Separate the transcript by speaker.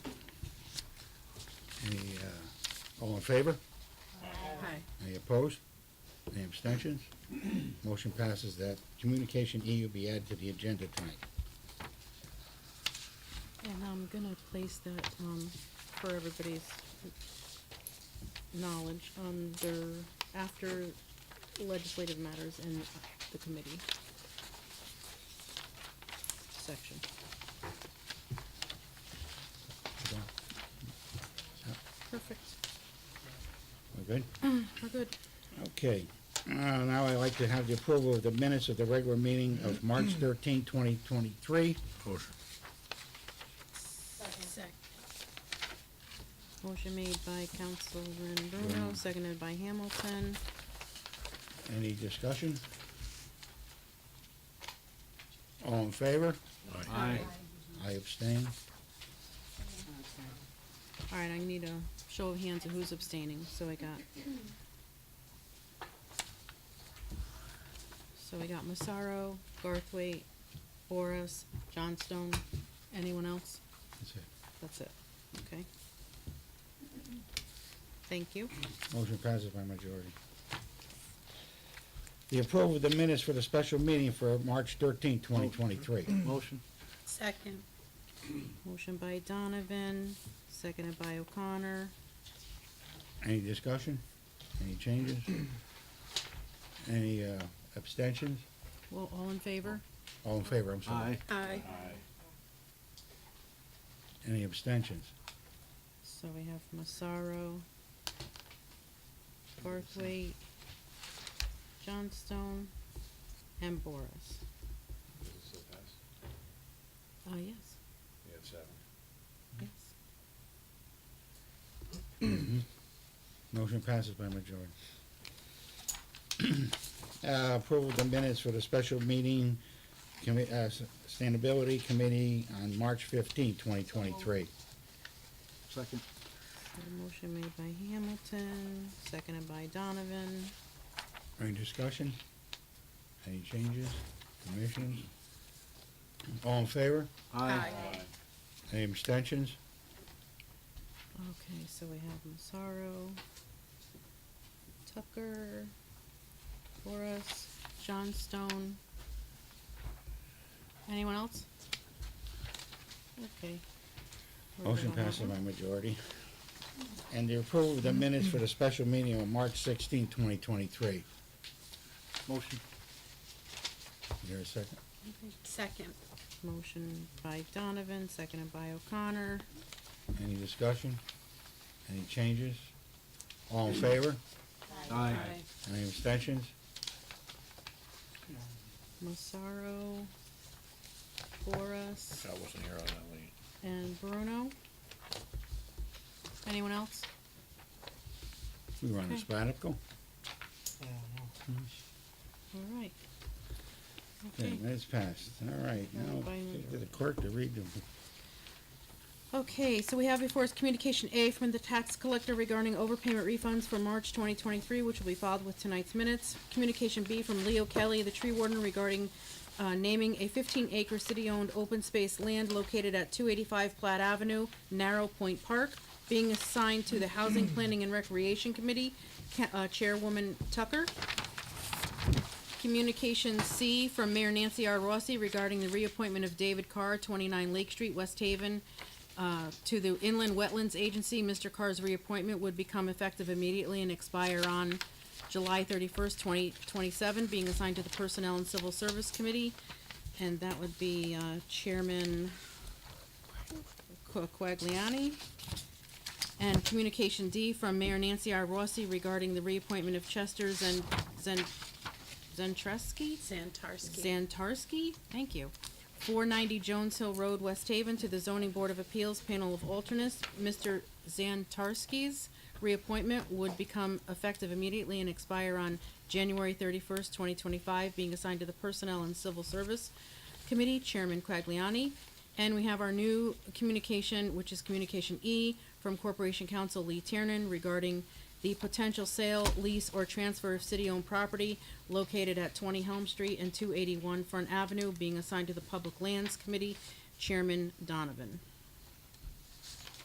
Speaker 1: Any, uh, all in favor?
Speaker 2: Hi.
Speaker 1: Any opposed? Any abstentions? Motion passes that Communication EU be added to the agenda tonight.
Speaker 2: And I'm gonna place that, um, for everybody's knowledge, under, after legislative matters and the committee section. Perfect.
Speaker 1: We're good?
Speaker 2: We're good.
Speaker 1: Okay. Uh, Now I'd like to have the approval of the minutes of the regular meeting of March 13, 2023.
Speaker 3: Motion.
Speaker 2: Second. Motion made by Councilman Bruno, seconded by Hamilton.
Speaker 1: Any discussion? All in favor?
Speaker 3: Aye.
Speaker 1: I abstain.
Speaker 2: All right, I need a show of hands of who's abstaining, so I got. So I got Masaro, Garthwaite, Boris, Johnstone, anyone else?
Speaker 1: That's it.
Speaker 2: That's it, okay? Thank you.
Speaker 1: Motion passes by majority. The approval of the minutes for the special meeting for March 13, 2023.
Speaker 3: Motion.
Speaker 4: Second.
Speaker 2: Motion by Donovan, seconded by O'Connor.
Speaker 1: Any discussion? Any changes? Any uh, abstentions?
Speaker 2: Well, all in favor?
Speaker 1: All in favor, I'm sorry.
Speaker 4: Aye.
Speaker 1: Any abstentions?
Speaker 2: So we have Masaro, Garthwaite, Johnstone, and Boris. Uh, yes,
Speaker 3: You have seven.
Speaker 2: yes.
Speaker 1: Motion passes by majority. Uh, Approval of the minutes for the special meeting, commi- uh, Sustainability Committee on March 15, 2023.
Speaker 3: Second.
Speaker 2: So the motion made by Hamilton, seconded by Donovan.
Speaker 1: Any discussion? Any changes? Commissions? All in favor?
Speaker 4: Aye.
Speaker 1: Any abstentions?
Speaker 2: Okay, so we have Masaro, Tucker, Boris, Johnstone. Anyone else? Okay. We're good
Speaker 1: Motion
Speaker 2: on that
Speaker 1: passes
Speaker 2: one.
Speaker 1: by majority. And the approval of the minutes for the special meeting on March 16, 2023.
Speaker 3: Motion.
Speaker 1: Is there a second?
Speaker 4: Second.
Speaker 2: Motion by Donovan, seconded by O'Connor.
Speaker 1: Any discussion? Any changes? All in favor?
Speaker 3: Aye.
Speaker 1: Any abstentions?
Speaker 2: Masaro, Boris,
Speaker 3: I wasn't here on that one.
Speaker 2: and Bruno. Anyone else?
Speaker 1: We were on a
Speaker 2: Okay.
Speaker 1: sabbatical.
Speaker 2: All right.
Speaker 1: Okay,
Speaker 2: Okay.
Speaker 1: that's passed. All right, now,
Speaker 2: Fine.
Speaker 1: get the clerk to read them.
Speaker 2: Okay, so we have before us Communication A from the tax collector regarding overpayment refunds for March 2023, which will be filed with tonight's minutes. Communication B from Leo Kelly, the tree warden, regarding uh, naming a 15-acre city-owned open space land located at 285 Platt Avenue, Narrow Point Park, being assigned to the Housing Planning and Recreation Committee, Ca- uh, Chairwoman Tucker. Communication C from Mayor Nancy R. Rossi regarding the reappointment of David Carr, 29 Lake Street, West Haven, uh, to the Inland Wetlands Agency. Mr. Carr's reappointment would become effective immediately and expire on July 31st, 2027, being assigned to the Personnel and Civil Service Committee. And that would be uh, Chairman Qu- Quagliani. And Communication D from Mayor Nancy R. Rossi regarding the reappointment of Chester Zan- Zan- Zentreski?
Speaker 4: Santarski.
Speaker 2: Zantarski, thank you. 490 Jones Hill Road, West Haven, to the Zoning Board of Appeals, panel of alternates. Mr. Zantarski's reappointment would become effective immediately and expire on January 31st, 2025, being assigned to the Personnel and Civil Service Committee, Chairman Quagliani. And we have our new communication, which is Communication E, from Corporation Counsel Lee Tiernan regarding the potential sale, lease, or transfer of city-owned property located at 20 Helm Street and 281 Front Avenue being assigned to the Public Lands Committee, Chairman Donovan.